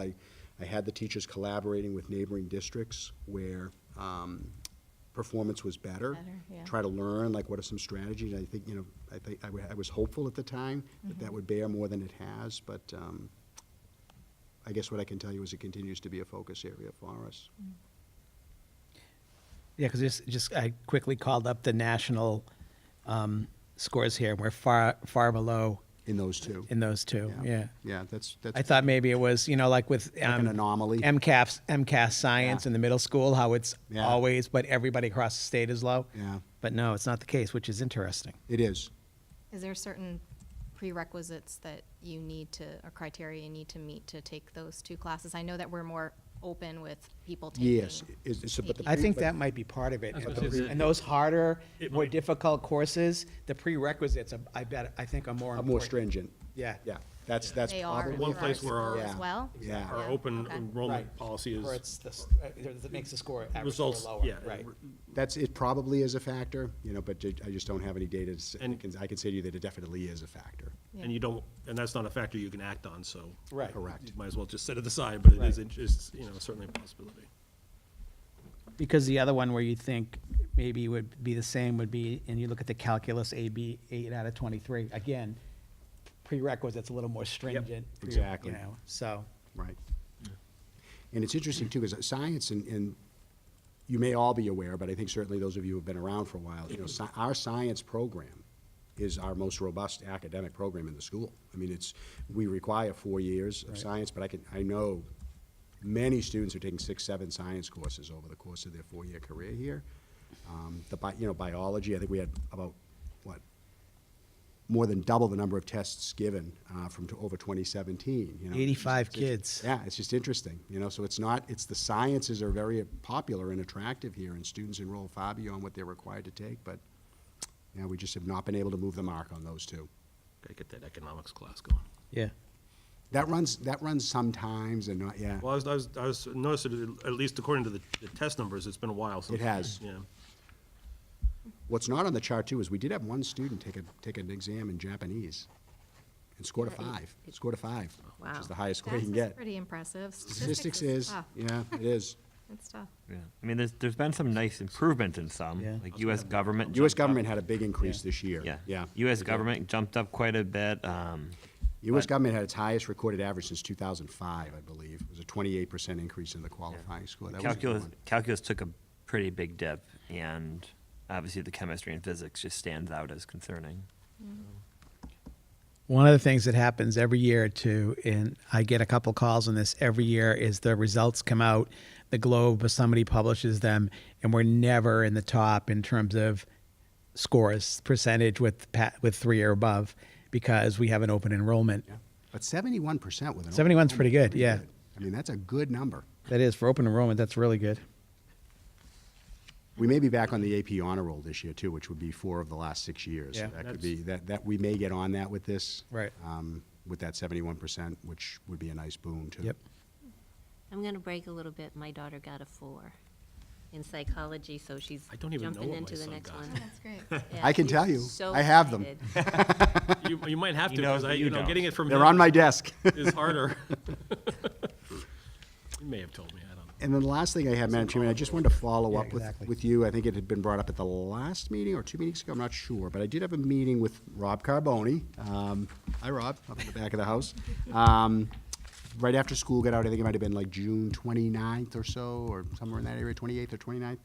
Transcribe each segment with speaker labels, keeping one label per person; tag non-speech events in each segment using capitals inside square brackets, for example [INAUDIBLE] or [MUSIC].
Speaker 1: I, I had the teachers collaborating with neighboring districts where um, performance was better.
Speaker 2: Better, yeah.
Speaker 1: Try to learn, like, what are some strategies? I think, you know, I think, I wa- I was hopeful at the time that
Speaker 2: Mm-hmm.
Speaker 1: that would bear more than it has, but um, I guess what I can tell you is it continues to be a focus area for us.
Speaker 2: Mm.
Speaker 3: Yeah, because just, just I quickly called up the national um, scores here, and we're far far below
Speaker 1: In those two.
Speaker 3: in those two. Yeah.
Speaker 1: Yeah, that's, that's.
Speaker 3: I thought maybe it was you know like with um,
Speaker 1: an anomaly.
Speaker 3: MCAS MCAS science
Speaker 1: Yeah.
Speaker 3: in the middle school, how it's
Speaker 1: Yeah.
Speaker 3: always but everybody across the state is low.
Speaker 1: Yeah,
Speaker 3: But no, it's not the case, which is interesting.
Speaker 1: it is.
Speaker 2: Is there certain prerequisites that you need to, or criteria you need to meet to take those two classes? I know that we're more open with people taking. E
Speaker 1: Yes, it's, it's, but the.
Speaker 3: I think
Speaker 1: but-
Speaker 3: that might be part of it.
Speaker 4: was
Speaker 3: And
Speaker 4: gonna
Speaker 3: those-
Speaker 4: say-
Speaker 3: and those harder,
Speaker 4: It
Speaker 3: more
Speaker 4: might.
Speaker 3: difficult courses, the prerequisites, are- I bet, I think are
Speaker 1: Are
Speaker 3: more important.
Speaker 1: more stringent.
Speaker 3: Yeah.
Speaker 1: Yeah, that's, that's
Speaker 2: They are
Speaker 1: probably.
Speaker 2: in
Speaker 4: One
Speaker 2: our
Speaker 4: place where our-
Speaker 2: school As
Speaker 1: Yeah,
Speaker 2: well?
Speaker 1: yeah.
Speaker 4: Our
Speaker 2: Yeah,
Speaker 4: open
Speaker 2: okay.
Speaker 4: enrollment
Speaker 3: Right.
Speaker 4: policy
Speaker 3: Or
Speaker 4: is
Speaker 3: it's, the s- uh, that makes the score average score
Speaker 4: results,
Speaker 3: lower,
Speaker 4: yeah.
Speaker 3: right?
Speaker 1: That's, it probably is a factor, you know, but ju- I just don't have any data to say, I
Speaker 4: And-
Speaker 1: can, I can say to you that it definitely is a factor.
Speaker 2: Yeah.
Speaker 4: And you don't, and that's not a factor you can act on, so.
Speaker 3: Right.
Speaker 1: Correct.
Speaker 4: You might as well just set it aside, but it is,
Speaker 3: Right.
Speaker 4: it's, you know, certainly a possibility.
Speaker 3: Because the other one where you think maybe would be the same would be, and you look at the calculus AB, eight out of twenty-three, again, prerequisites a little more stringent. pre-
Speaker 1: exactly.
Speaker 3: You know, so,
Speaker 1: Right. And it's interesting too, because science and, and you may all be aware, but I think certainly those of you who've been around for a while, you know, sci- our science program is our most robust academic program in the school. I mean, it's, we require four years of science, but I can, I know many students are taking six, seven science courses over the course of their four-year career here. Um, the bi, you know, biology, I think we had about, what, more than double the number of tests given uh, from to over 2017. You know, It's-
Speaker 3: 85
Speaker 1: it's-
Speaker 3: kids.
Speaker 1: Yeah, it's just interesting. You know, so it's not. It's the sciences are very popular and attractive here, and students enroll far beyond what they're required to take. But yeah, we just have not been able to move the mark on those two.
Speaker 4: Gotta get that economics class going.
Speaker 3: yeah.
Speaker 1: That runs. That runs sometimes, and not. Yeah,
Speaker 4: Well, I was, I was, I was noticed, that at least according to the, the test numbers, it's been a while since.
Speaker 1: It has.
Speaker 4: Yeah.
Speaker 1: what's not on the chart too is we did have one student take a take an exam in Japanese, and scored a
Speaker 2: Yeah, it-
Speaker 1: five. Scored a five, which is the highest score
Speaker 2: Oh, That's
Speaker 1: you can get.
Speaker 2: Pretty impressive.
Speaker 1: Statistics is.
Speaker 2: tough.
Speaker 1: Yeah, it is.
Speaker 2: It's tough.
Speaker 5: Yeah, I mean, there's, there's been some nice improvements in some,
Speaker 3: Yeah.
Speaker 5: like US government.
Speaker 1: U.S.
Speaker 5: jumped up-
Speaker 1: government had a big increase
Speaker 3: Yeah.
Speaker 1: this year.
Speaker 5: Yeah.
Speaker 1: Yeah.
Speaker 5: US government jumped up quite a bit, um,
Speaker 1: U.S.
Speaker 5: But-
Speaker 1: government had its highest recorded average since 2005, I believe. It was a 28% increase in the qualifying score. That was a good
Speaker 5: calculus,
Speaker 1: one.
Speaker 5: calculus took a pretty big dip, and obviously the chemistry and physics just stands out as concerning.
Speaker 3: One of the things that happens every year too, and I get a couple calls on this every year, is the results come out, the Globe or somebody publishes them, and we're never in the top in terms of scores percentage with pa- with three or above because we have an open enrollment.
Speaker 1: Yeah. But 71% with an.
Speaker 3: 71's pretty good, yeah.
Speaker 1: I mean, that's a good number.
Speaker 3: That is for open enrollment. That's really good.
Speaker 1: We may be back on the AP honor roll this year, too, which would be four of the last six years. So
Speaker 3: Yeah.
Speaker 1: That could
Speaker 4: That's-
Speaker 1: be, that, that, we may get on that with this.
Speaker 3: Right.
Speaker 1: um, With that 71%, which would be a nice boon, too.
Speaker 3: Yep.
Speaker 6: I'm going to break a little bit. My daughter got a four in psychology, so she's
Speaker 4: I don't even know
Speaker 6: jumping
Speaker 4: what
Speaker 6: into
Speaker 4: my
Speaker 6: the
Speaker 4: son
Speaker 6: next
Speaker 1: [LAUGHS]
Speaker 4: got.
Speaker 6: one.
Speaker 2: That's great.
Speaker 6: Yeah,
Speaker 1: I can
Speaker 6: she's
Speaker 1: tell you.
Speaker 6: so
Speaker 1: I have them.
Speaker 6: excited.
Speaker 4: You, you might have to,
Speaker 5: He knows
Speaker 4: because I,
Speaker 5: that you
Speaker 4: you know,
Speaker 5: don't.
Speaker 4: getting it from
Speaker 1: They're on
Speaker 4: him
Speaker 1: my desk. [LAUGHS]
Speaker 4: is harder. You may have told me, I don't know.
Speaker 1: And then the last thing I had, Madam Chairman, I just wanted to follow
Speaker 3: Yeah,
Speaker 1: up with,
Speaker 3: exactly.
Speaker 1: with you. I think it had been brought up at the last meeting or two meetings ago, I'm not sure. But I did have a meeting with Rob Carboni. Um, Hi, Rob, up in the back of the house. Um, Right after school got out, I think it might have been like June 29th or so, or somewhere in that area, 28th or 29th.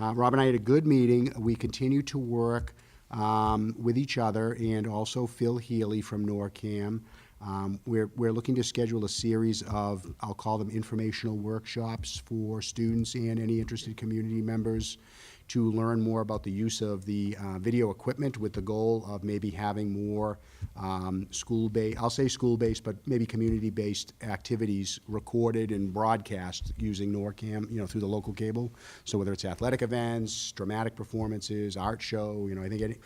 Speaker 1: Uh, Rob and I had a good meeting. We continue to work um, with each other and also Phil Healy from NORCAM. Um, We're, we're looking to schedule a series of, I'll call them informational workshops for students and any interested community members to learn more about the use of the uh, video equipment with the goal of maybe having more um, school-based, I'll say school-based, but maybe community-based activities recorded and broadcast using NORCAM, you know, through the local cable. So whether it's athletic events, dramatic performances, art show, you know, I think any,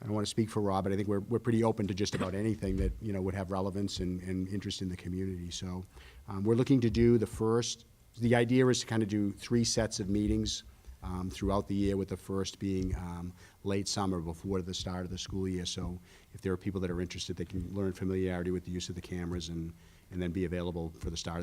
Speaker 1: I don't want to speak for Rob, but I think we're, we're pretty open to just about anything that, you know, would have relevance and, and interest in the community. So um, we're looking to do the first, the idea is to kind of do three sets of meetings um, throughout the year, with the first being um, late summer before the start of the school year. So if there are people that are interested, they can learn familiarity with the use of the cameras and, and then be available for the start of the